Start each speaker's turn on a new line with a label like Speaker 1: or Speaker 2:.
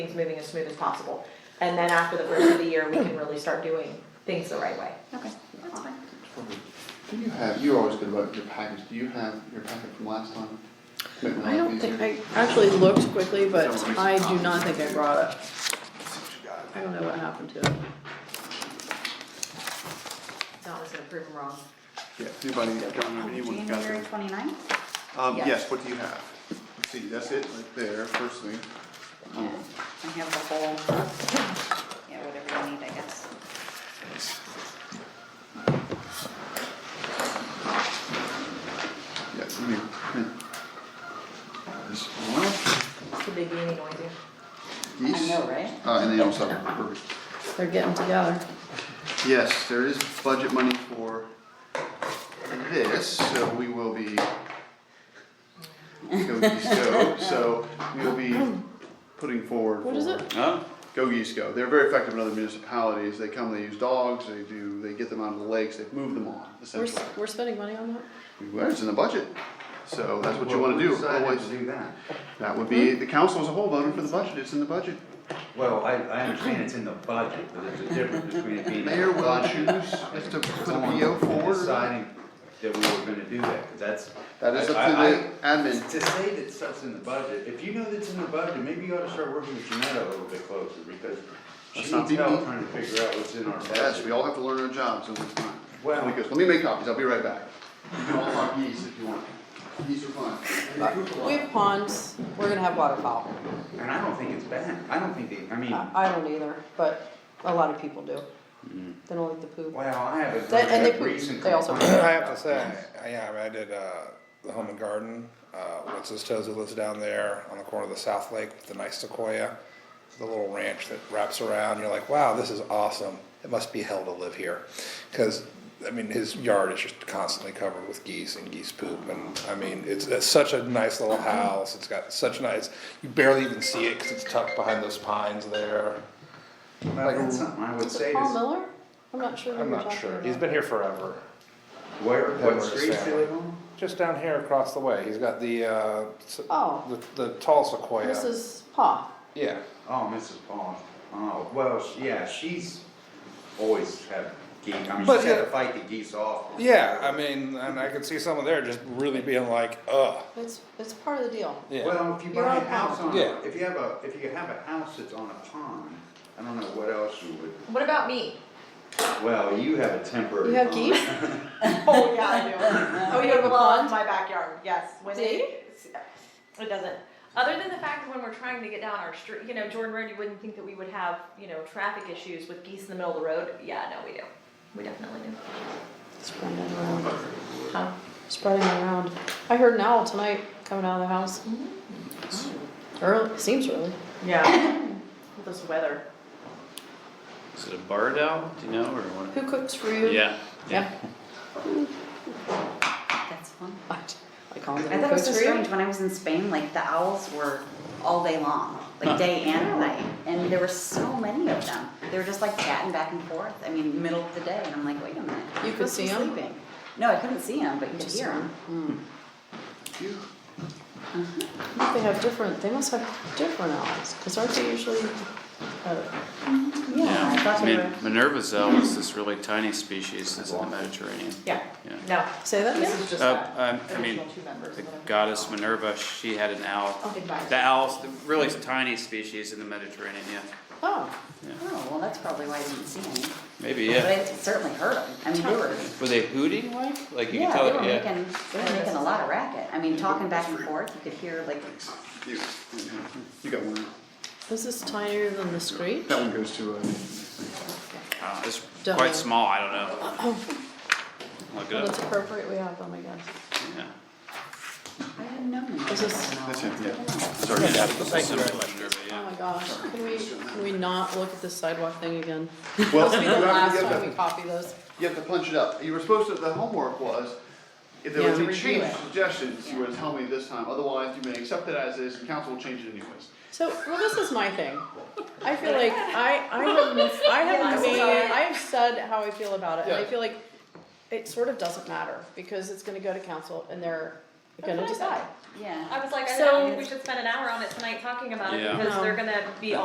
Speaker 1: things moving as smooth as possible. And then after the first of the year, we can really start doing things the right way.
Speaker 2: Okay, that's fine.
Speaker 3: Do you have, you're always good about your package, do you have your packet from last time?
Speaker 4: I don't think, I actually looked quickly, but I do not think I brought it. I don't know what happened to it.
Speaker 1: Donna's gonna prove them wrong.
Speaker 3: Yeah, anybody, Don, anyone's got
Speaker 2: January
Speaker 3: that?
Speaker 2: twenty-ninth?
Speaker 3: Um,
Speaker 1: Yes.
Speaker 3: yes, what do you have? Let's see, that's it right there, first thing.
Speaker 2: Yeah, I have the whole, yeah, whatever you need, I guess.
Speaker 3: Yeah, come here. here. This one,
Speaker 1: It's the big meeting going to.
Speaker 3: these.
Speaker 2: I know, right?
Speaker 3: Uh, and they also have, perfect.
Speaker 4: They're getting together.
Speaker 3: Yes, there is budget money for this, so we will be. Go Geese Go, so we will be putting forward.
Speaker 4: What is
Speaker 3: for-
Speaker 4: it?
Speaker 5: Oh,
Speaker 3: Go Geese Go. They're very effective in other municipalities. They come, they use dogs, they do, they get them out of the lakes, they move them on,
Speaker 4: We're,
Speaker 3: essentially.
Speaker 4: s- we're spending money on that?
Speaker 3: Well, it's in the budget, so that's what you wanna do. Always,
Speaker 6: do that.
Speaker 3: that would
Speaker 4: Hmm?
Speaker 3: be, the council as a whole voting for the budget, it's in the budget.
Speaker 6: Well, I, I understand it's in the budget, but there's a difference between it being. in the
Speaker 3: Mayor will
Speaker 6: budget
Speaker 3: choose if to put a
Speaker 6: and
Speaker 3: PO forward. or not.
Speaker 6: Deciding that we were gonna do that, 'cause that's.
Speaker 3: That is up
Speaker 6: I- I- I-
Speaker 3: to the admin.
Speaker 6: To say that stuff's in the budget, if you know that's in the budget, maybe you ought to start working with Janetta a little bit closer, because
Speaker 3: Let's
Speaker 6: she's
Speaker 3: not be
Speaker 6: hell
Speaker 3: mean.
Speaker 6: trying to figure out what's in our
Speaker 3: Yes, we
Speaker 6: budget.
Speaker 3: all have to learn our jobs over time.
Speaker 6: Well-
Speaker 3: And he goes, let me make copies, I'll be right back. You can all talk geese if you want. Geese are fun.
Speaker 7: We have ponds, we're gonna have waterfowl.
Speaker 6: And I don't think it's bad, I don't think they, I mean,
Speaker 7: I I don't either, but a lot of people do. They don't like the poop.
Speaker 6: wow, I haven't
Speaker 7: They- and they
Speaker 6: heard a
Speaker 7: poop.
Speaker 6: recent
Speaker 7: They also-
Speaker 6: complaint.
Speaker 8: I have to say, I- yeah, I did uh, the home and garden. Uh, what's his toes who lives down there on the corner of the South Lake with the nice sequoia, the little ranch that wraps around. You're like, wow, this is awesome. It must be hell to live here, because I mean, his yard is just constantly covered with geese and geese poop, and I mean, it's, it's such a nice little house. It's got such nice. You barely even see it because it's tucked behind those pines there.
Speaker 6: Well, that's something I would
Speaker 4: Is
Speaker 6: say
Speaker 4: it
Speaker 6: to
Speaker 4: Paul Miller? I'm not sure who
Speaker 8: I'm
Speaker 4: you're
Speaker 8: not
Speaker 4: talking
Speaker 8: sure.
Speaker 4: about.
Speaker 8: He's been here forever.
Speaker 6: Where,
Speaker 8: Where
Speaker 6: what
Speaker 8: is
Speaker 6: streets do
Speaker 8: that?
Speaker 6: they live on?
Speaker 8: Just down here across the way, he's got the, uh, s-
Speaker 4: Oh,
Speaker 8: the, the tall sequoia.
Speaker 4: this is Paul.
Speaker 8: Yeah,
Speaker 6: Oh, Mrs. Bond. Oh, well, she- yeah, she's always had geese. I mean,
Speaker 8: But
Speaker 6: she's had to
Speaker 8: yeah.
Speaker 6: fight the geese off.
Speaker 8: yeah, I mean, and I could see someone there just really being like, ugh,
Speaker 4: It's, it's part of the deal.
Speaker 8: yeah.
Speaker 6: Well, if you
Speaker 4: You're
Speaker 6: buy a
Speaker 4: on
Speaker 6: house on,
Speaker 8: Yeah.
Speaker 6: a- if you have a, if you have a house that's on a pond, I don't know what else you would,
Speaker 1: What about me?
Speaker 6: well, you have a temporary.
Speaker 4: You have
Speaker 6: pond.
Speaker 4: geese?
Speaker 1: Oh, yeah, I do. Oh, you have a
Speaker 4: pond?
Speaker 1: My backyard, yes. When
Speaker 4: Do
Speaker 1: they-
Speaker 4: you?
Speaker 1: It doesn't. Other than the fact that when we're trying to get down our street, you know, Jordan Road, you wouldn't think that we would have, you know, traffic issues with geese in the middle of the road. Yeah, no, we do. We definitely do.
Speaker 4: Spreading it around,
Speaker 1: Huh?
Speaker 4: spreading it around. I heard an owl tonight coming out of the house. Early, seems early.
Speaker 1: Yeah. With this weather.
Speaker 5: is it a bird owl? Do you know or what?
Speaker 4: Who cooks for you?
Speaker 5: Yeah.
Speaker 4: Yeah.
Speaker 2: That's fun.
Speaker 4: I I call him.
Speaker 2: I thought it was so strange, when I was in Spain, like the owls were all day long, like day and night, and there were so many of them. They were just like chatting back and forth, I mean, middle of the day, and I'm like, wait a minute.
Speaker 4: You
Speaker 2: you're
Speaker 4: could
Speaker 2: supposed to be
Speaker 4: see 'em?
Speaker 2: sleeping. No, I couldn't see them, but you could
Speaker 4: Just
Speaker 2: hear
Speaker 4: hear
Speaker 2: them.
Speaker 4: 'em.
Speaker 3: You-
Speaker 4: Hmm. They have different, they must have different owls, because aren't they usually, uh,
Speaker 2: Yeah, I thought they
Speaker 5: Min-
Speaker 2: were,
Speaker 5: Minerva's owl is this really tiny species that's in the Mediterranean.
Speaker 1: Yeah.
Speaker 5: Yeah.
Speaker 1: No.
Speaker 4: say that
Speaker 1: This
Speaker 4: again?
Speaker 1: is just that.
Speaker 5: Uh, um, I mean,
Speaker 1: Original two members.
Speaker 5: the goddess Minerva, she had an owl.
Speaker 1: Big bite.
Speaker 5: The owl's the really tiny species in the Mediterranean, yeah.
Speaker 4: Oh,
Speaker 2: oh, well, that's probably why I didn't see any,
Speaker 5: Maybe,
Speaker 2: but
Speaker 5: yeah.
Speaker 2: I certainly heard them, I mean, they were,
Speaker 5: Were they hooting like? Like you could
Speaker 2: yeah,
Speaker 5: tell,
Speaker 2: they were
Speaker 5: yeah.
Speaker 2: making, they were making a lot of racket. I mean, talking back and forth, you could hear like
Speaker 3: You you got one.
Speaker 4: this is tinier than the screech?
Speaker 3: That one goes to, uh,
Speaker 5: I don't know, Uh, it's
Speaker 4: Don't know.
Speaker 5: quite small, I don't know. Look
Speaker 4: Well,
Speaker 5: it
Speaker 4: that's
Speaker 5: up,
Speaker 4: appropriate, we have oh them, I guess.
Speaker 5: yeah.
Speaker 2: I didn't know.
Speaker 4: This is-
Speaker 3: that's him, yeah.
Speaker 5: Similar to Minerva,
Speaker 4: Oh
Speaker 5: yeah.
Speaker 4: my gosh, can we, can we not look at the sidewalk thing again?
Speaker 3: Well,
Speaker 4: This will be
Speaker 3: you
Speaker 4: the
Speaker 3: have to
Speaker 4: last
Speaker 3: get
Speaker 4: time
Speaker 3: the-
Speaker 4: we copy those.
Speaker 3: You have to punch it up. You were supposed to, the homework was, if there was
Speaker 4: Yeah,
Speaker 3: any
Speaker 4: review
Speaker 3: change
Speaker 4: it.
Speaker 3: suggestions, you were to tell me this time. Otherwise, you may accept it as is and council will change it anyways.
Speaker 4: So, well, this is my thing. I feel like I, I have, I
Speaker 1: Yeah,
Speaker 4: have
Speaker 1: I'm
Speaker 4: made,
Speaker 1: sorry.
Speaker 4: I have said how I feel about it, and I
Speaker 3: Yeah.
Speaker 4: feel like it sort of doesn't matter, because it's gonna go to council and they're gonna
Speaker 1: That's what I
Speaker 4: decide.
Speaker 1: thought.
Speaker 2: Yeah.
Speaker 1: I was like, I
Speaker 4: So-
Speaker 1: don't think we should spend an hour on it tonight talking about it
Speaker 5: Yeah.
Speaker 1: because
Speaker 4: No.
Speaker 1: they're gonna be